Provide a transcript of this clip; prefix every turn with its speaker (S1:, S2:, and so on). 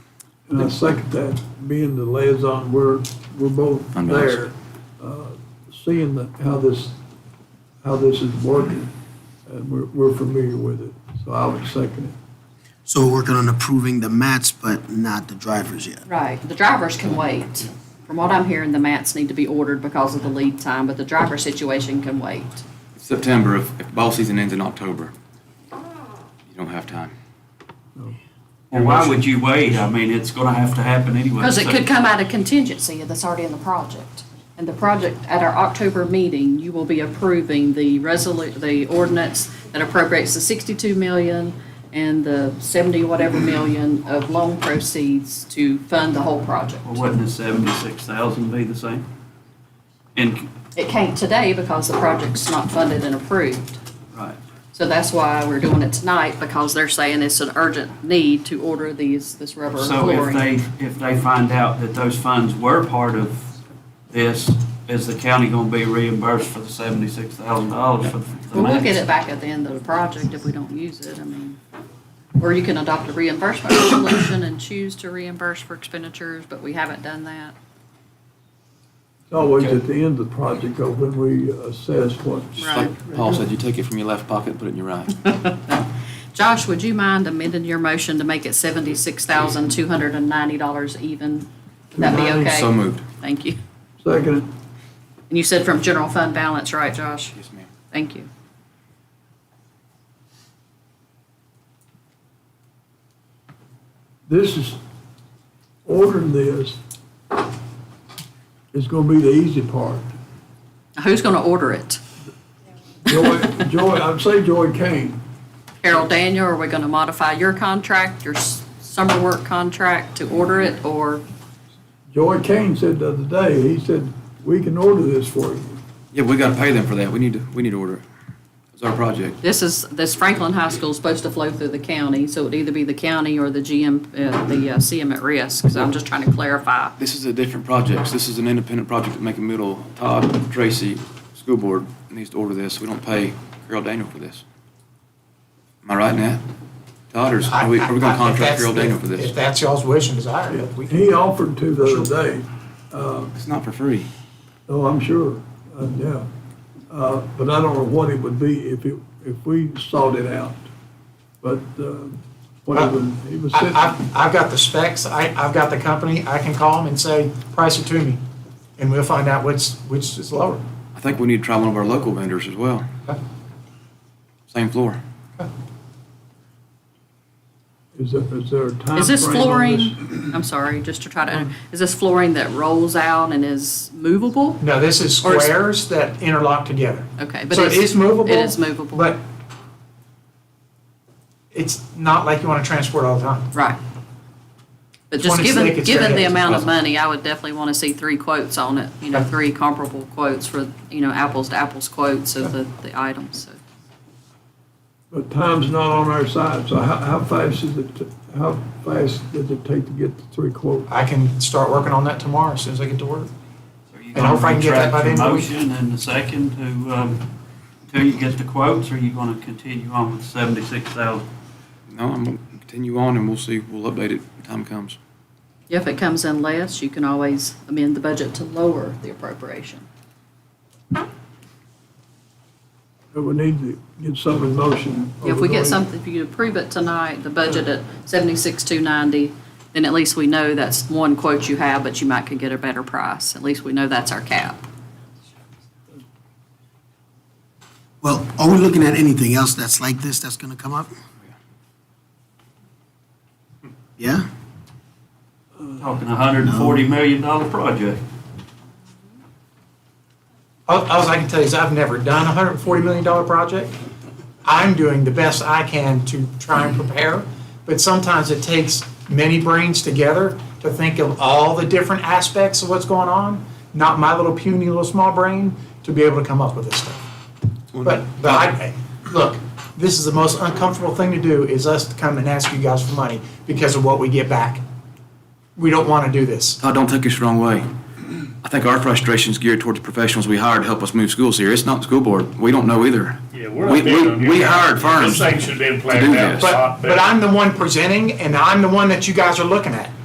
S1: And I second that, being the liaison, we're, we're both
S2: I'm not-
S1: there, uh, seeing that, how this, how this is working, and we're, we're familiar with it, so I would second it.
S3: So we're working on approving the mats, but not the drivers yet.
S4: Right, the drivers can wait. From what I'm hearing, the mats need to be ordered because of the lead time, but the driver situation can wait.
S2: September, if, if ball season ends in October, you don't have time.
S5: Well, why would you wait? I mean, it's gonna have to happen anyway.
S4: Because it
S5: so-
S4: could come out of contingency that's already in the project. And the project, at our October meeting, you will be approving the resolu, the ordinance that appropriates the sixty-two million and the seventy whatever million of loan proceeds to fund the whole project.
S5: Well, Wouldn't the seventy-six thousand be the same? And,
S4: It can't today because the project's not funded and approved.
S5: right,
S4: So that's why we're doing it tonight, because they're saying it's an urgent need to order these, this rubber
S5: so if
S4: flooring.
S5: they, if they find out that those funds were part of this, is the county gonna be reimbursed for the seventy-six thousand dollars for the
S4: Well, we'll
S5: mats?
S4: get it back at the end of the project if we don't use it, I mean. Or you can adopt a reimbursement resolution and choose to reimburse for expenditures, but we haven't done that.
S1: It's always at the end of the project, though, when we assess what.
S2: Just
S4: Right.
S2: like Paul said, you take it from your left pocket, put it in your right.
S4: Josh, would you mind amending your motion to make it seventy-six thousand, two hundred and ninety dollars even? Would that be okay?
S2: So moved.
S4: Thank you.
S1: Second,
S4: And you said from general fund balance, right, Josh?
S2: Yes, ma'am.
S4: Thank you.
S1: this is, ordering this is gonna be the easy part.
S4: Who's gonna order it?
S1: Joy, Joy, I'd say Joy Kane,
S4: Carol Daniel, are we going to modify your contract, your s- summer work contract to order it, or,
S1: Joy Kane said the other day, he said, we can order this for you.
S2: Yeah, we gotta pay them for that. We need to, we need to order. it. It's our project.
S4: this is, this Franklin High School is supposed to flow through the county, so it'd either be the county or the GM, uh, the uh, CM at risk, so I'm just trying to clarify.
S2: This is a different project. This is an independent project at Macon Middle. Todd, Tracy, school board needs to order this. We don't pay Carol Daniel for this. Am I right, Nat? Todd, or is- are we, are we gonna
S6: I- I- if
S2: contract
S6: that's-
S2: Carol Daniel for
S6: If
S2: this?
S6: that's y'all's wish and desire, but we
S1: He
S6: can,
S1: offered to the other day, uh,
S2: It's not for free.
S1: oh, I'm sure, uh, yeah. Uh, but I don't know what it would be if it, if we sought it out. But, uh, what it would, he was
S6: I,
S1: sitting, I
S6: I've- I've got the specs, I, I've got the company, I can call them and say, price it to me, and we'll find out which, which is lower.
S2: I think we need to try one of our local vendors as well. Same floor.
S1: is there, is there a timeframe on
S4: Is this flooring,
S1: this?
S4: I'm sorry, just to try to, is this flooring that rolls out and is movable?
S6: No, this is
S4: Or is-
S6: squares that interlock together.
S4: Okay, but
S6: So it
S4: it's.
S6: is movable.
S4: It is movable.
S6: But it's not like you want to transport all the time.
S4: Right. But
S6: It's
S4: just
S6: one it's thick,
S4: given,
S6: it's
S4: given the
S6: very-
S4: amount of money, I would definitely want to see three quotes on it, you know,
S6: Okay.
S4: three comparable quotes for, you know, apples to apples quotes of the, the items, so.
S1: But time's not on our side, so how, how fast is it, to- how fast does it take to get the three quotes?
S6: I can start working on that tomorrow as soon as I get to work.
S5: Are you
S6: And I'll
S5: gonna
S6: try and get that by
S5: retract your
S6: the end of the
S5: motion and the second to, um, until you get the quotes, or are you gonna continue on with seventy-six thousand?
S2: No, I'm gonna continue on and we'll see. We'll update it when time comes.
S4: If it comes in less, you can always amend the budget to lower the appropriation.
S1: But we need to get some in motion.
S6: Oh,
S1: or
S4: If we
S1: we're gonna-
S4: get something, if you approve it tonight, the budget at seventy-six, two ninety, then at least we know that's one quote you have, but you might could get a better price. At least we know that's our cap.
S3: Well, are we looking at anything else that's like this that's gonna come up? Yeah?
S5: Talking a hundred and forty million dollar project.
S6: All, all I can tell you is I've never done a hundred and forty million dollar project. I'm doing the best I can to try and prepare, but sometimes it takes many brains together to think of all the different aspects of what's going on, not my little puny little small brain, to be able to come up with this stuff. But, but I, look, this is the most uncomfortable thing to do, is us to come and ask you guys for money because of what we get back. We don't wanna do this.
S2: Todd, don't take this the wrong way. I think our frustration's geared towards the professionals we hired to help us move schools here. It's not the school board. We don't know either.
S7: Yeah, we're
S2: We-
S7: not bidding
S2: we-
S7: on your
S2: We
S7: house.
S2: hired firms.
S7: This thing should have been
S2: do
S7: planned out.
S2: this.
S7: a
S6: But,
S7: lot better.
S6: but I'm the one presenting and I'm the one that you guys are looking at.